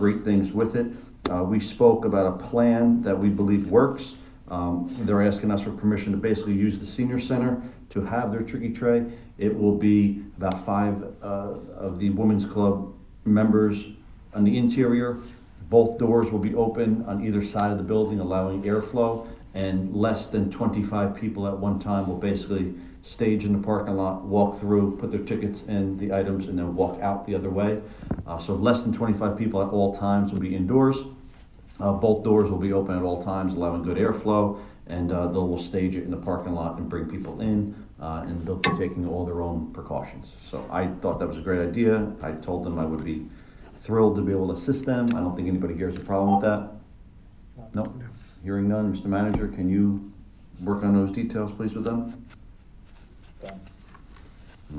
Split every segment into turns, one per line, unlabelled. great things with it. Uh, We spoke about a plan that we believe works. Um, They're asking us for permission to basically use the senior center to have their tricky tray. It will be about five uh, of the women's club members on the interior. Both doors will be open on either side of the building, allowing airflow, and less than 25 people at one time will basically stage in the parking lot, walk through, put their tickets in the items, and then walk out the other way. Uh, So less than 25 people at all times will be indoors. Uh, Both doors will be open at all times, allowing good airflow, and uh, they will stage it in the parking lot and bring people in, uh, and they'll be taking all their own precautions. So I thought that was a great idea. I told them I would be thrilled to be able to assist them. I don't think anybody here has a problem with that. No? Hearing none, Mr. Manager, can you work on those details, please, with them?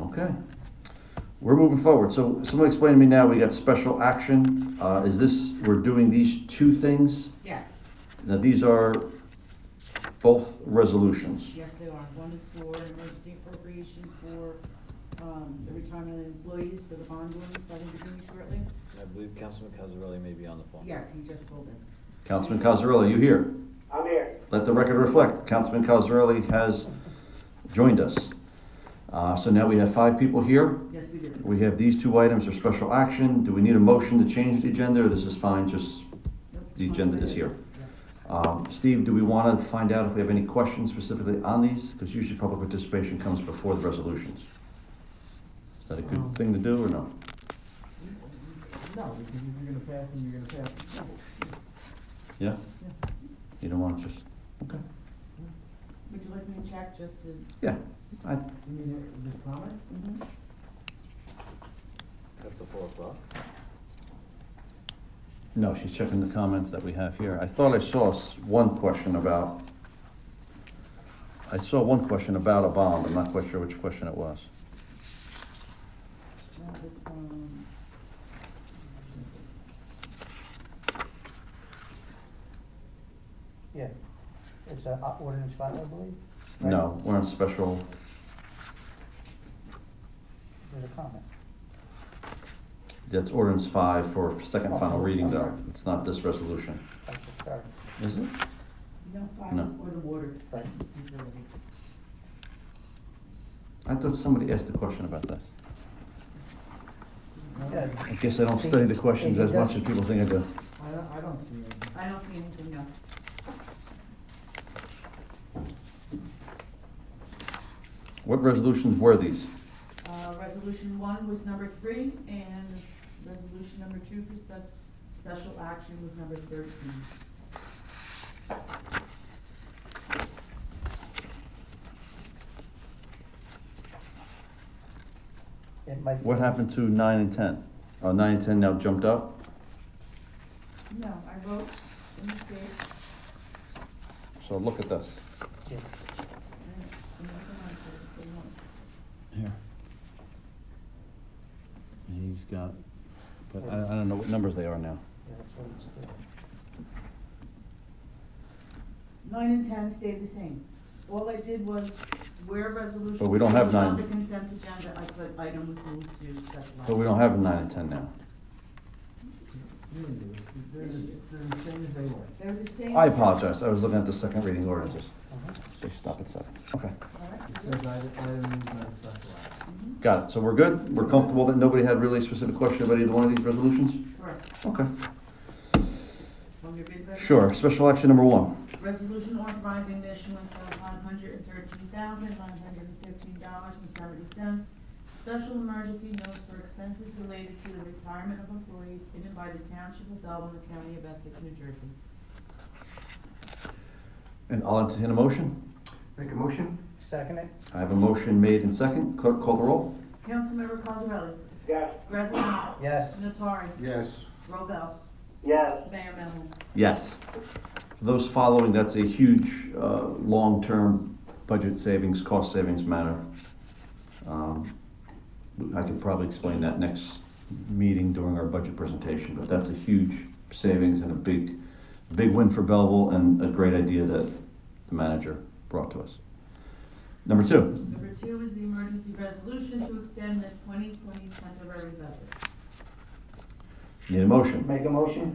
Okay. We're moving forward. So someone explain to me now, we got special action. Uh, Is this, we're doing these two things?
Yes,
Now, these are both resolutions.
yes, they are. One is for emergency appropriation for, um, the retirement of employees for the bond ordinance that will be due shortly.
I believe Councilman Cazarelli may be on the phone.
Yes, he just pulled it.
Councilman Cosarelli, you here?
I'm here.
Let the record reflect, Councilman Cosarelli has joined us. Uh, So now we have five people here.
Yes, we did.
We have these two items for special action. Do we need a motion to change the agenda, or this is fine, just,
Nope,
the
it's
agenda
fine.
is here. um, Steve, do we want to find out if we have any questions specifically on these? Because usually public participation comes before the resolutions. Is that a good thing to do, or no?
No, because if you're gonna pass it, you're gonna pass it.
Yeah? You don't want to just, okay,
Would you like me to check just to?
yeah. I,
You mean, it- the comment?
Mm-hmm.
That's the four o'clock.
no, she's checking the comments that we have here. I thought I saw s- one question about, I saw one question about a bond. I'm not quite sure which question it was.
That was from,
Yeah, it's a uh, ordinance five, I believe. right?
No, we're on special,
There's a comment.
that's ordinance five for second and final reading though. It's not this resolution.
That's a start,
Is it?
no,
No.
fire or the water.
right?
utility.
I thought somebody asked a question about this.
Yeah,
I guess I don't study the questions as much as people think I do.
I don't, I don't see it.
I don't see anything, no.
What resolutions were these?
Uh, resolution one was number three, and resolution number two for steps, special action was number thirteen.
It might.
What happened to nine and ten? Uh, nine and ten now jumped up?
No, I wrote a mistake.
So look at this.
Yeah.
I- I'm not gonna answer it, so you won't.
Here. And he's got, but I, I don't know what numbers they are now.
Yeah, that's what it's doing.
Nine and ten stayed the same. All I did was where resolution.
But we don't have
was On
nine.
the consent agenda, I put item was moved to special
But we
action.
don't have nine and ten now.
You don't do it. They're, the- they're the same as they were.
They're the same.
I apologize, I was looking at the second reading ordinances.
Mhm.
They stop at seven. Okay,
All right,
It
good.
says item, item is not specified.
Mhm,
got it. So we're good? We're comfortable that nobody had really a specific question about either one of these resolutions?
Correct.
Okay,
Want me to read the resolution?
sure. Special action number one.
Resolution authorizing the issuance of one hundred and thirteen thousand, nine hundred and fifteen dollars and seventy cents. Special emergency notes for expenses related to the retirement of employees in and by the Township of Dublin, the County of Essex, New Jersey.
And I'll entertain a motion.
Make a motion?
Second it?
I have a motion made and second. Clerk, call the roll.
Councilmember Cosarelli?
Yes.
Graziano?
Yes.
Notari,
Yes.
Robel,
Yes.
Mayor Melham.
Yes. For Those following, that's a huge, uh, long-term budget savings, cost savings matter. Um, I could probably explain that next meeting during our budget presentation, but that's a huge savings and a big, big win for Belleville and a great idea that the manager brought to us. Number two,
Number two is the emergency resolution to extend the twenty twenty temporary budget.
Need a motion?
Make a motion?